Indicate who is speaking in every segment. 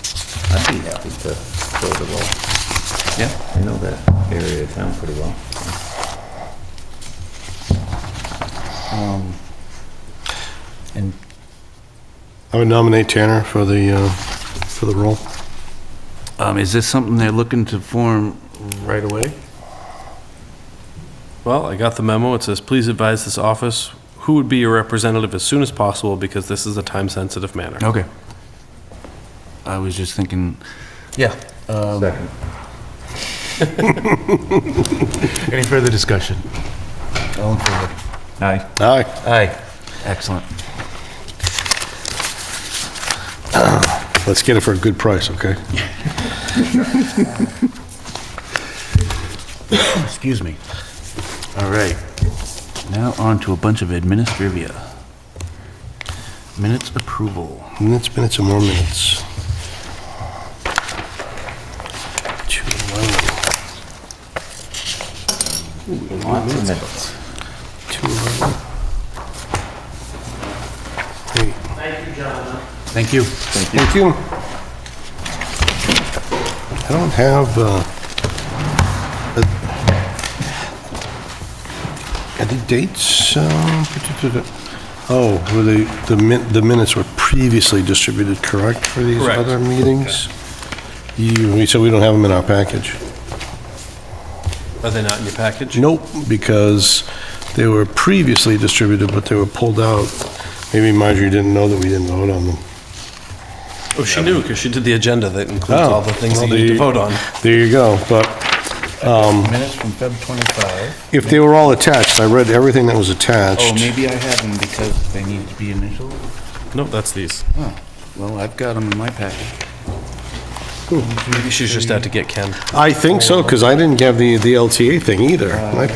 Speaker 1: I'd be happy to go to uh, the,
Speaker 2: Yeah.
Speaker 1: I know that area of town pretty well.
Speaker 2: Um, And
Speaker 3: I would nominate Tanner for the, uh, for the role.
Speaker 4: Um, is this something they're looking to form right away?
Speaker 5: Well, I got the memo. It says, please advise this office who would be your representative as soon as possible because this is a time-sensitive matter.
Speaker 4: Okay. I was just thinking,
Speaker 2: yeah,
Speaker 1: Second.
Speaker 3: Any further discussion?
Speaker 2: all in favor?
Speaker 1: Aye.
Speaker 3: Aye.
Speaker 2: Aye.
Speaker 4: excellent.
Speaker 3: Let's get it for a good price, okay?
Speaker 4: Excuse me.
Speaker 3: All right.
Speaker 4: Now on to a bunch of administrivia. Minutes approval.
Speaker 3: Minutes, minutes, and more minutes. Two, eleven,
Speaker 1: Lots of minutes.
Speaker 3: two, eleven. Eight.
Speaker 4: Thank you.
Speaker 3: Thank you. I don't have, uh, uh, are the dates, uh, oh, were they, the min, the minutes were previously distributed, correct, for these
Speaker 5: Correct.
Speaker 3: other meetings? You, we said we don't have them in our package.
Speaker 5: Are they not in your package?
Speaker 3: Nope, because they were previously distributed, but they were pulled out. Maybe Marjorie didn't know that we didn't vote on them.
Speaker 5: Oh, she knew because she did the agenda that includes
Speaker 3: Oh,
Speaker 5: all the things that
Speaker 3: well,
Speaker 5: you need to
Speaker 3: the-
Speaker 5: vote on.
Speaker 3: There you go, but
Speaker 2: Minutes from Feb 25.
Speaker 3: If they were all attached, I read everything that was
Speaker 2: Oh,
Speaker 3: attached.
Speaker 2: maybe I have them because they need to be initialed?
Speaker 5: No, that's these.
Speaker 2: Oh, well, I've got them in my packet.
Speaker 5: Maybe she's just out to get Ken.
Speaker 3: I think so, because I didn't have the, the LTA thing either. My,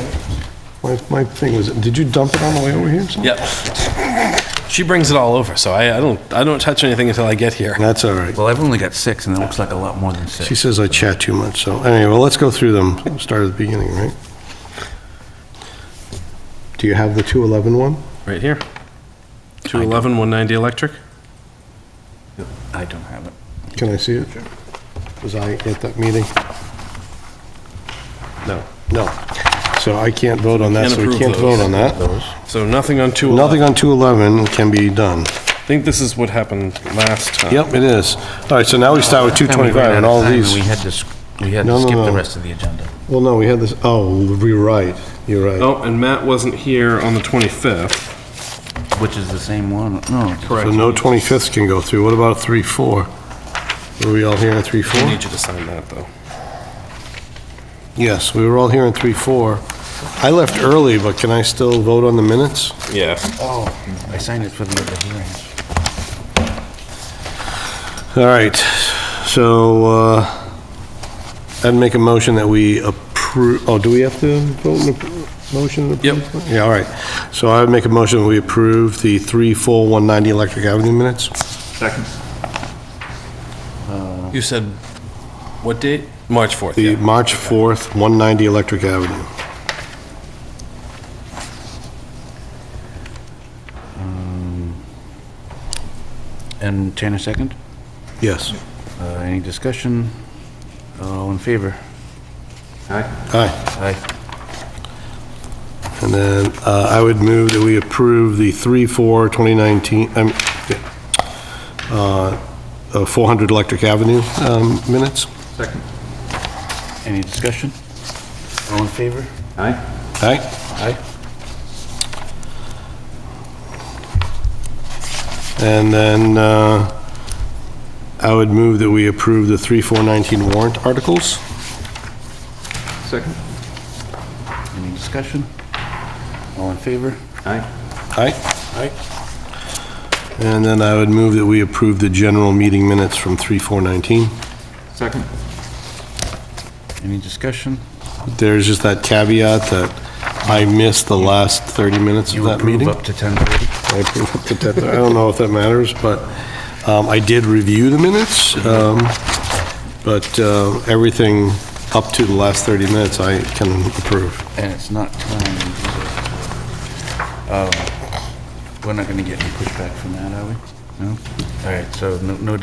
Speaker 3: my- my thing was, did you dump it on the way over here? or something?
Speaker 5: Yep. She brings it all over, so I, I don't, I don't touch anything until I get here.
Speaker 3: That's all right.
Speaker 4: Well, I've only got six, and it looks like a lot more than six.
Speaker 3: She says I chat too much, so anyway, well, let's go through them. Start at the beginning, right? Do you have the 211 one?
Speaker 5: Right here. 211, 190 electric?
Speaker 4: I don't have it.
Speaker 3: Can I see it? Was I at that meeting? No, no. So I can't vote on that,
Speaker 5: Can't
Speaker 3: so we
Speaker 5: approve
Speaker 3: can't
Speaker 5: those.
Speaker 3: vote on that.
Speaker 5: So nothing on 211.
Speaker 3: Nothing on 211 can be done.
Speaker 5: I think this is what happened last time.
Speaker 3: Yep, it is. All right, so now we start with
Speaker 2: Time we
Speaker 3: 225
Speaker 2: ran
Speaker 3: and
Speaker 2: out of
Speaker 3: all
Speaker 2: time and
Speaker 3: these.
Speaker 2: We had to, sc- we had
Speaker 3: No,
Speaker 2: to
Speaker 3: no,
Speaker 2: skip the
Speaker 3: no.
Speaker 2: rest of the agenda.
Speaker 3: Well, no, we had this, oh, we're right, you're right.
Speaker 5: Oh, and Matt wasn't here on the 25th.
Speaker 4: Which is the same one? No.
Speaker 3: So no 25th can go through. What about 3-4? Were we all here in
Speaker 5: I
Speaker 3: 3-4?
Speaker 5: need you to sign that, though.
Speaker 3: Yes, we were all here in 3-4. I left early, but can I still vote on the minutes?
Speaker 5: Yeah.
Speaker 2: Oh. I signed it for the other hearings.
Speaker 3: All right, so uh, I'd make a motion that we approve, oh, do we have to vote in a motion? to approve? Yeah, all right. So I would make a motion that we approve the 3-4-190 Electric Avenue minutes.
Speaker 1: Second.
Speaker 5: You said, what date? March 4th,
Speaker 3: The
Speaker 5: yeah.
Speaker 3: March 4th, 190 Electric Avenue.
Speaker 4: And Tanner second?
Speaker 3: Yes.
Speaker 4: Uh, Any discussion? All in favor?
Speaker 3: Aye.
Speaker 4: Aye.
Speaker 3: And then uh, I would move that we approve the 3-4, 2019, um, uh, uh, 400 Electric Avenue um, minutes.
Speaker 1: Second.
Speaker 4: Any discussion? All in favor?
Speaker 1: Aye.
Speaker 3: Aye.
Speaker 4: Aye.
Speaker 3: And then uh, I would move that we approve the 3-4-19 warrant articles.
Speaker 1: Second.
Speaker 4: Any discussion? All in favor?
Speaker 1: Aye.
Speaker 3: Aye. Aye. And then I would move that we approve the general meeting minutes from 3-4-19.
Speaker 1: Second.
Speaker 4: Any discussion?
Speaker 3: There's just that caveat that I missed the last 30 minutes of
Speaker 4: You
Speaker 3: that
Speaker 4: approve
Speaker 3: meeting.
Speaker 4: up to 10:30?
Speaker 3: I approve up to 10. I don't know if that matters, but um, I did review the minutes, um, but uh, everything up to the last 30 minutes, I can approve.
Speaker 4: And it's not timed. Uh, Um, We're not going to get any pushback from that, are we? No? All right, so no no